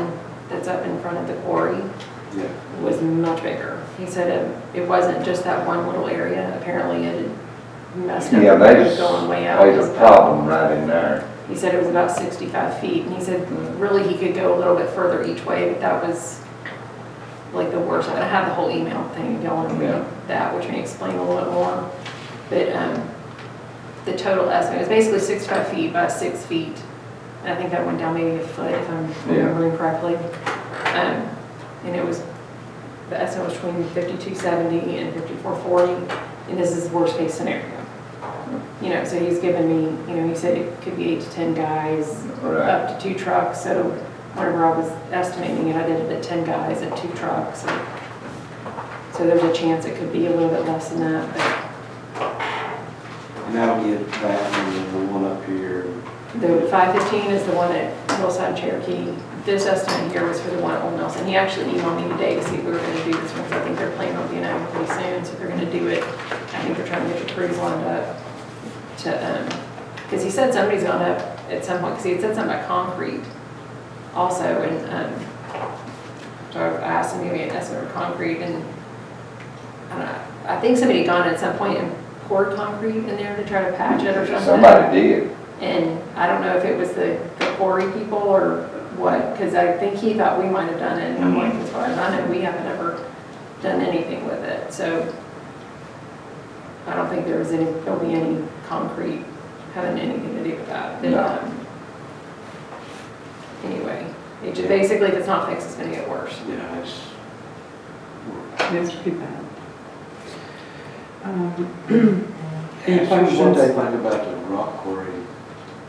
was up in front of the quarry Yeah. was much bigger. He said it, it wasn't just that one little area, apparently it had messed up. Yeah, It was that's, Going way out. there's a problem right in there. He said it was about sixty-five feet, and he said Mm-hmm. really he could go a little bit further each way, but that was like the worst. I have the whole email thing, if y'all wanna Yeah. read that, which may explain a little bit more. But, um, the total estimate is basically sixty-five feet by six feet. And I think that went down maybe a foot, if I'm Yeah. remembering correctly. Um, and it was, the estimate was between fifty-two seventy and fifty-four forty, and this is worst-case scenario. You know, so he's given me, you know, he said it could be eight to ten guys, Right, up to two trucks, so whenever I was estimating it, I did it at ten guys and two trucks. so- So there's a chance it could be a little bit less than that, but And I'll get that and then the one up here. the five fifteen is the one at Hillside Cherokee. This estimate here was for the one at Old Nelson. He actually emailed me today to see if we were gonna do this one, because I think they're planning on being out pretty soon, so if they're gonna do it, I think they're trying to get the crews lined up to, um, because he said somebody's gone up at some point, because he had said something about concrete also, and, um, So I asked him to give me an estimate of concrete and, I don't know, I think somebody had gone at some point and poured concrete in there to try to patch it or something. somebody did. And I don't know if it was the the quarry people or what, because I think he thought we might have done it. And I'm like, as far as I know, we haven't ever done anything with it, so I don't think there was any, there'll be any concrete having anything to do with that. But, No. um, Anyway, it ju- basically, if it's not fixed, it's gonna get worse. Yeah, it's. That's pretty bad. Um, Actually, Any What questions? they think about the rock quarry?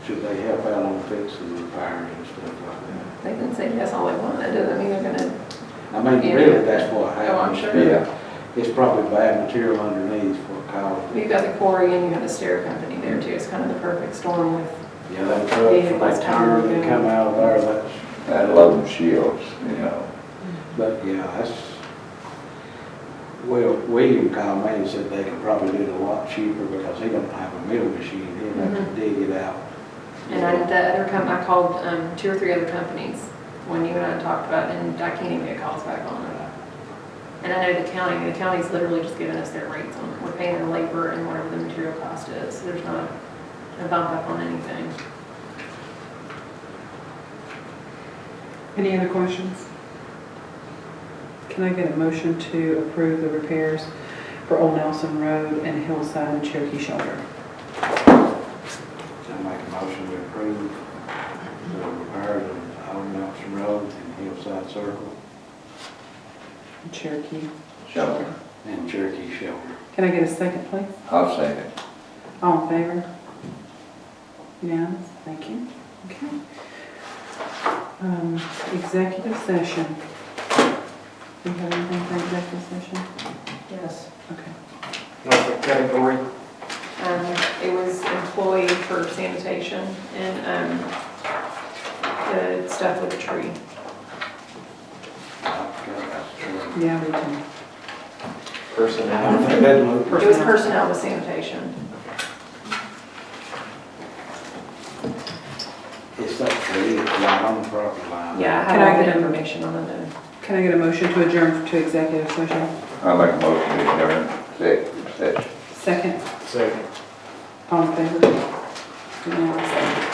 Should they help out on fixing the fire and stuff like They can say yes all they want, that doesn't mean they're gonna, that? I mean, really, that's what oh, I'm happens. sure. Yeah, It's probably bad material underneath what caused it. You've got the quarry and you have the stair company there too, it's kind of the perfect storm with Yeah, that truck from that tower that come out of there, that's, that load of shields, you know. but yeah, that's. Well, William called me and said they could probably do it a lot cheaper because he don't have a mill machine, he'd have to dig it out. Mm-hmm. And I, the other com, I called, um, two or three other companies when you and I talked about, it, and I can't even get calls back on it. And I know the county, the county's literally just giving us their rates on it. We're paying their labor and whatever the material cost is. So There's not a bump up on anything. Any other questions? Can I get a motion to approve the repairs for Old Nelson Road and Hillside and Cherokee Shoulder? I make a motion to approve the repairs of Old Nelson Road and Hillside Circle Cherokee So, Shoulder. and Cherokee Shelter. Can I get a second, please? I'll say it. All in favor? Unanimous? Thank you. Okay. Um, Executive session. Do you have anything for executive session? Yes. Okay. Um, it was employee for sanitation and, um, the stuff with the tree. Yeah, we can. It was personnel with sanitation. It's that tree, it's right on the property line. Yeah, I Can I have all the get a- information on the note. Can I get a motion to adjourn to executive session? I make a motion to adjourn executive session. Second, Second. all in favor? Unanimous.